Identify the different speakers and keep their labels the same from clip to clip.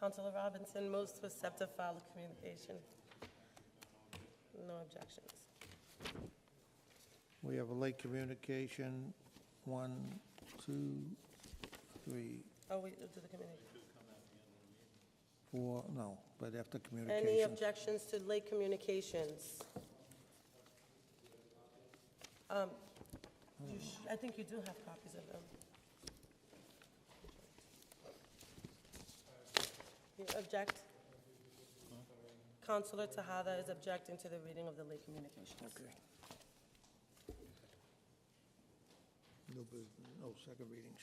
Speaker 1: Counselor Robinson moves to accept a file of communication. No objections.
Speaker 2: We have a late communication, one, two, three,
Speaker 1: Oh, we do the committee.
Speaker 2: four, no, but after
Speaker 1: Any
Speaker 2: communication.
Speaker 1: objections to late communications? Um, you sh- I think you do have copies of them. You object? Counselor Tahada is objecting to the reading of the late communications.
Speaker 2: Okay. No, bus- no second readings.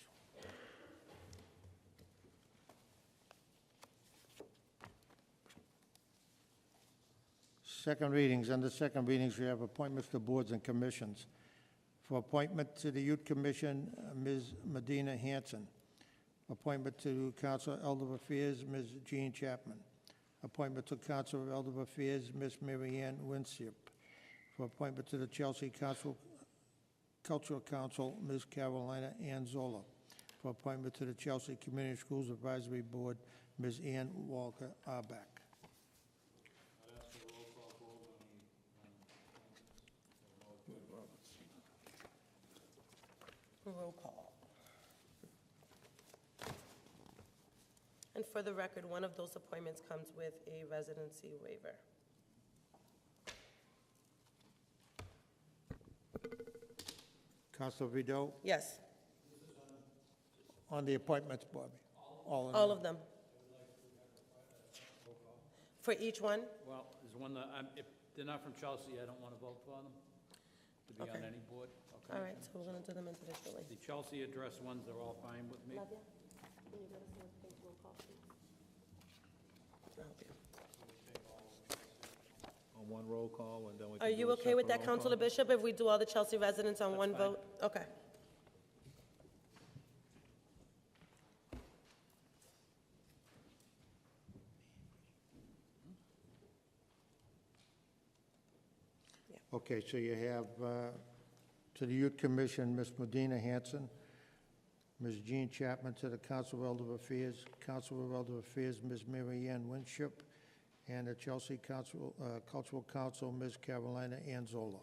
Speaker 2: Second readings, under second readings, we have appointments to boards and commissions. For appointment to the Youth Commission, uh, Ms. Medina Hanson. Appointment to Council of Elder Affairs, Ms. Jean Chapman. Appointment to Council of Elder Affairs, Ms. Mary Ann Winship. For appointment to the Chelsea Council, Cultural Council, Ms. Carolina Ann Zola. For appointment to the Chelsea Community Schools Advisory Board, Ms. Ann Walker Arbeck.
Speaker 1: Roll call. And for the record, one of those appointments comes with a residency waiver.
Speaker 2: Counselor Vido,
Speaker 1: Yes,
Speaker 2: on the appointments, Bobby. All in
Speaker 1: all
Speaker 2: all.
Speaker 1: of them. For each one?
Speaker 3: Well, there's one that, I'm- if they're not from Chelsea, I don't want to vote for them to be on
Speaker 1: Okay.
Speaker 3: any board. okay?
Speaker 1: All right, so we're going to do them individually.
Speaker 3: The Chelsea address ones are all fine with me.
Speaker 4: on one roll call, and then we can
Speaker 1: Are
Speaker 4: do
Speaker 1: you
Speaker 4: a
Speaker 1: okay with
Speaker 4: separate
Speaker 1: that,
Speaker 4: roll
Speaker 1: Counselor
Speaker 4: call?
Speaker 1: Bishop, if we do all the Chelsea residents on
Speaker 3: That's
Speaker 1: one
Speaker 3: fine.
Speaker 1: vote? Okay.
Speaker 2: Okay, so you have, uh, to the Youth Commission, Ms. Medina Hanson, Ms. Jean Chapman to the Council of Elder Affairs, Council of Elder Affairs, Ms. Mary Ann Winship, and the Chelsea Council, uh, Cultural Council, Ms. Carolina Anzola.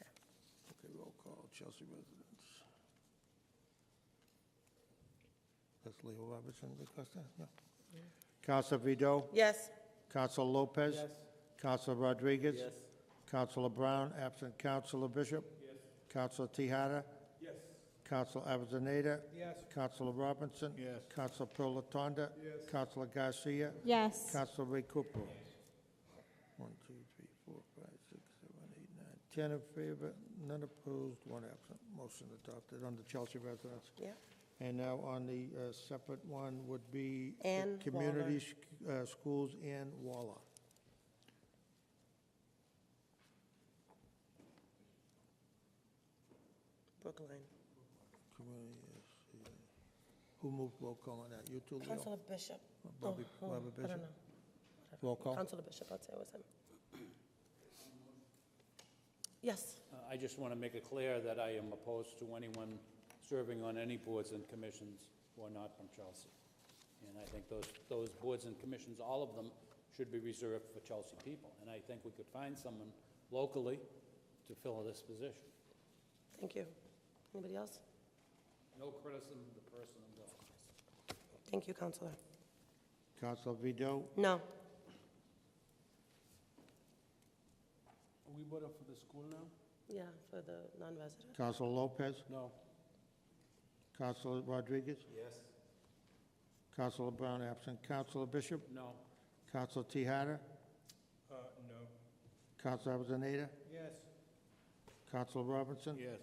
Speaker 2: Okay, roll call, Chelsea residents. That's Leo Robertson, request that, no. Council Vido,
Speaker 1: Yes,
Speaker 2: Council Lopez. Council Rodriguez.
Speaker 3: Yes.
Speaker 2: Counselor Brown, absent Counselor Bishop. Yes. Counselor Tahada.
Speaker 3: Yes.
Speaker 2: Counselor Avellaneda.
Speaker 3: Yes.
Speaker 2: Counselor Robinson.
Speaker 4: Yes.
Speaker 2: Counselor Pilatanda. Yes. Counselor Garcia.
Speaker 5: Yes.
Speaker 2: Counselor Ray Cooper. One, two, three, four, five, six, seven, eight, nine. Ten in favor, none opposed, one absent. Motion adopted on the Chelsea residents.
Speaker 1: yeah,
Speaker 2: And now on the uh, separate one would be. the
Speaker 1: Ann Waller.
Speaker 2: Community sc- uh, Schools and Waller.
Speaker 1: Brookline.
Speaker 2: Community, yes, yeah. Who moved roll call on that? You two, Leo?
Speaker 1: Counselor Bishop. Oh,
Speaker 2: Bobby-
Speaker 1: oh, I
Speaker 2: Bobby
Speaker 1: don't
Speaker 2: Bishop? Oh.
Speaker 1: know.
Speaker 2: Roll call.
Speaker 1: Counselor Bishop, I'll say it was him. Yes,
Speaker 3: Uh, I just want to make it clear that I am opposed to anyone serving on any boards and commissions who are not from Chelsea. And I think those, those boards and commissions, all of them, should be reserved for Chelsea people. And I think we could find someone locally to fill this position.
Speaker 1: thank you. Anybody else?
Speaker 3: No criticism of the person involved.
Speaker 1: Thank you, Counselor.
Speaker 2: Counselor Vido,
Speaker 1: No,
Speaker 3: Are we voting for the school now?
Speaker 1: yeah, for the non-resident.
Speaker 2: Counselor Lopez,
Speaker 3: No.
Speaker 2: Counselor Rodriguez,
Speaker 3: Yes.
Speaker 2: Counselor Brown absent, Counselor Bishop,
Speaker 3: No.
Speaker 2: Counselor Tahada,
Speaker 3: no.
Speaker 2: Counselor Avellaneda,
Speaker 3: Yes.
Speaker 2: Counselor Robinson,
Speaker 3: Yes.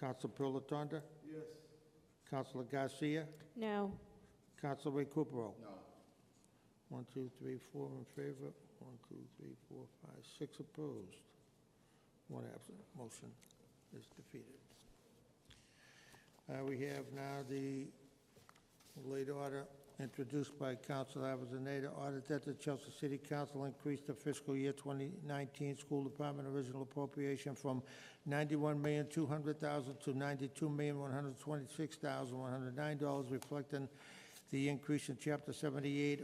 Speaker 2: Counselor Pilatanda,
Speaker 3: Yes.
Speaker 2: Counselor Garcia,
Speaker 5: No.
Speaker 2: Counselor Ray Recupero. No. One, two, three, four in favor, one, two, three, four, five, six opposed, one absent. Motion is defeated. Uh, We have now the late order introduced by Council Avellaneda, order that the Chelsea City Council increase the fiscal year 2019 school department original appropriation from $91,200,000 to $92,126,109, reflecting the increase in Chapter 78